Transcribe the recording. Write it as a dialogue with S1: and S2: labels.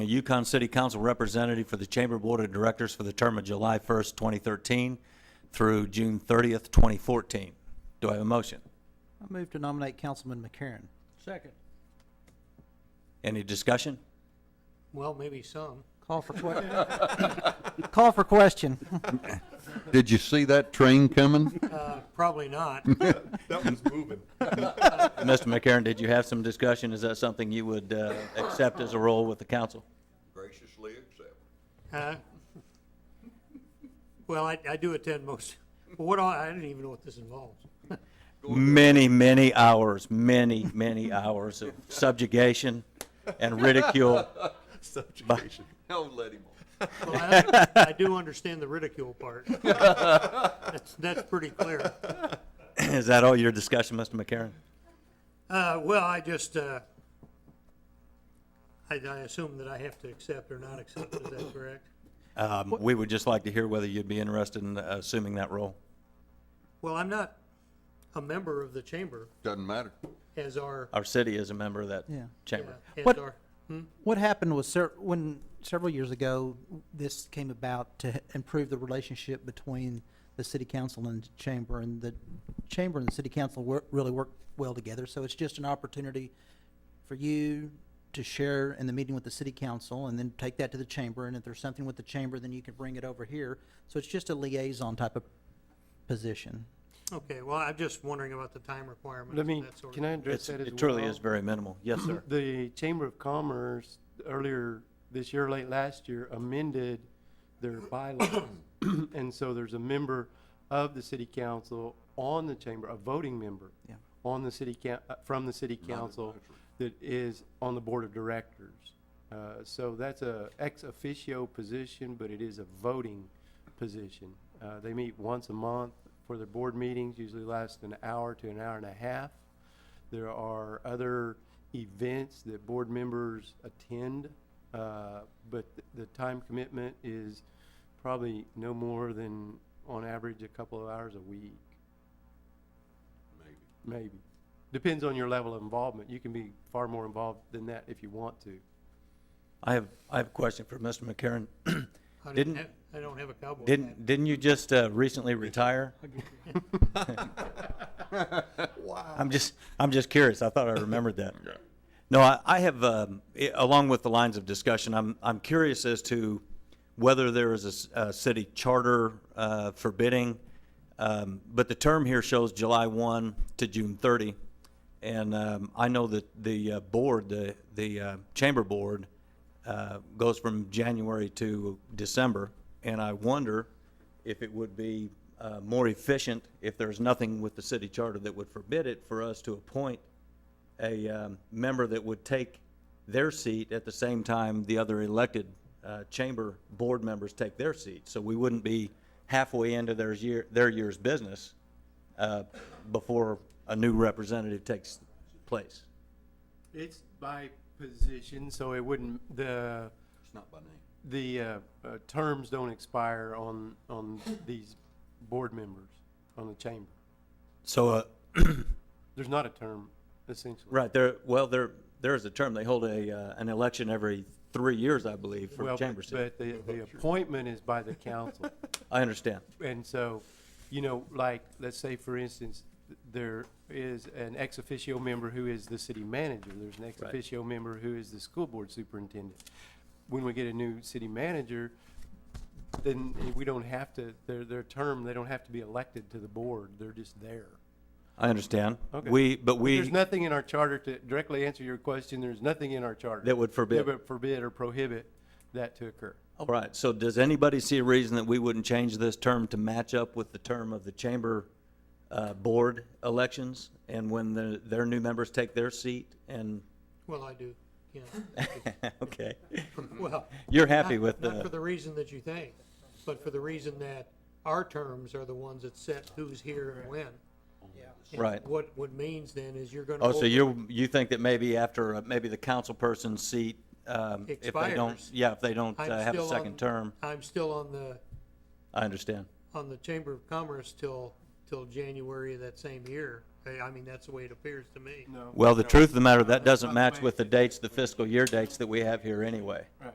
S1: a Yukon City Council representative for the Chamber Board of Directors for the term of July 1st, 2013 through June 30th, 2014. Do I have a motion?
S2: I move to nominate Councilman McCarron.
S3: Second.
S1: Any discussion?
S3: Well, maybe some.
S2: Call for que- call for question.
S4: Did you see that train coming?
S3: Uh, Probably not.
S5: That one's moving.
S1: Mr. McCarron, did you have some discussion? Is that something you would uh, accept as a role with the council?
S5: Graciously accept.
S3: Uh, Well, I, I do attend most, but what, all- I don't even know what this involves.
S1: Many, many hours, many, many hours of subjugation and ridicule.
S5: Subjugation. Don't let him on.
S3: Well, I I do understand the ridicule part. That's, that's pretty clear.
S1: Is that all your discussion, Mr. McCarron?
S3: Uh, Well, I just, uh, I, I assume that I have to accept or not accept, is that correct?
S1: Um, We would just like to hear whether you'd be interested in uh, assuming that role.
S3: Well, I'm not a member of the chamber
S4: Doesn't matter.
S3: as our,
S1: Our city is a member of that
S2: Yeah.
S1: chamber.
S3: as
S2: What-
S3: our,
S2: What happened was ser- when several years ago, this came about to h- improve the relationship between the city council and the chamber, and the chamber and the city council wor- really work well together. So it's just an opportunity for you to share in the meeting with the city council, and then take that to the chamber. And if there's something with the chamber, then you can bring it over here. So it's just a liaison type of position.
S3: okay, well, I'm just wondering about the time requirement.
S6: Let me,
S3: that sort of
S6: can I
S1: It's-
S6: address that as well?
S1: It truly is very minimal. Yes, sir.
S6: The Chamber of Commerce earlier this year, late last year, amended their bylaws. And so there's a member of the city council on the chamber, a voting member.
S2: Yeah.
S6: On the city coun, uh, from the city council that is on the board of directors. Uh, so that's a ex officio position, but it is a voting position. Uh, they meet once a month for their board meetings, usually last an hour to an hour and a half. There are other events that board members attend, uh, but th- the time commitment is probably no more than, on average, a couple of hours a week,
S5: Maybe.
S6: maybe. Depends on your level of involvement. You can be far more involved than that if you want to.
S1: I have, I have a question for Mr. McCarron.
S3: I didn't
S1: Didn't-
S3: have, I don't have a cowboy. hat.
S1: Didn't, didn't you just uh, recently retire? I'm just, I'm just curious. I thought I remembered that. No, I, I have, um, i- along with the lines of discussion, I'm, I'm curious as to whether there is a s- a, city charter uh, forbidding, um, but the term here shows July 1 to June 30. And um, I know that the uh, board, the, the uh, chamber board, uh, goes from January to December. And I wonder if it would be uh, more efficient, if there's nothing with the city charter that would forbid it, for us to appoint a um, member that would take their seat at the same time the other elected uh, chamber board members take their seat. So we wouldn't be halfway into their year, their year's business uh, before a new representative takes place.
S6: It's by position, so it wouldn't, the,
S5: It's not by name.
S6: the uh, uh, terms don't expire on, on these board members, on the chamber.
S1: So, uh,
S6: There's not a term, essentially.
S1: right, there, well, there, there is a term, they hold a, uh, an election every three years, I believe, for
S6: Well,
S1: chamber
S6: but
S1: seat.
S6: but the, the appointment is by the council.
S1: I understand.
S6: And so, you know, like, let's say, for instance, th- there is an ex officio member who is the city manager. There's an ex
S1: Right.
S6: officio member who is the school board superintendent. When we get a new city manager, then we don't have to, their, their term, they don't have to be elected to the board. They're just there.
S1: I understand.
S6: Okay.
S1: We, but we.
S6: There's nothing in our charter to directly answer your question. There's nothing in our charter.
S1: That would forbid.
S6: that would Forbid or prohibit that to occur.
S1: All right, so does anybody see a reason that we wouldn't change this term to match up with the term of the chamber uh, board elections? And when the- their new members take their seat and,
S3: Well, I do, yeah.
S1: okay,
S3: Well.
S1: you're happy
S3: not-
S1: with
S3: Not for
S1: the,
S3: the reason that you think, but for the reason that our terms are the ones that set who's here and when. And
S1: Right.
S3: What, what means then is you're gonna.
S1: oh, so
S3: hold-
S1: you, you think that maybe after, uh, maybe the council person's seat, um, if they don't,
S3: Expires.
S1: yeah, if they don't
S3: I'm
S1: uh, have a
S3: still
S1: second
S3: on-
S1: term,
S3: I'm still on the,
S1: I understand.
S3: on the Chamber of Commerce till, till January of that same year. I, I mean, that's the way it appears to me.
S6: No.
S1: Well, the truth of the matter, that doesn't
S6: By the
S1: match
S6: way-
S1: with the dates, the fiscal year dates that we have here anyway.
S6: Right.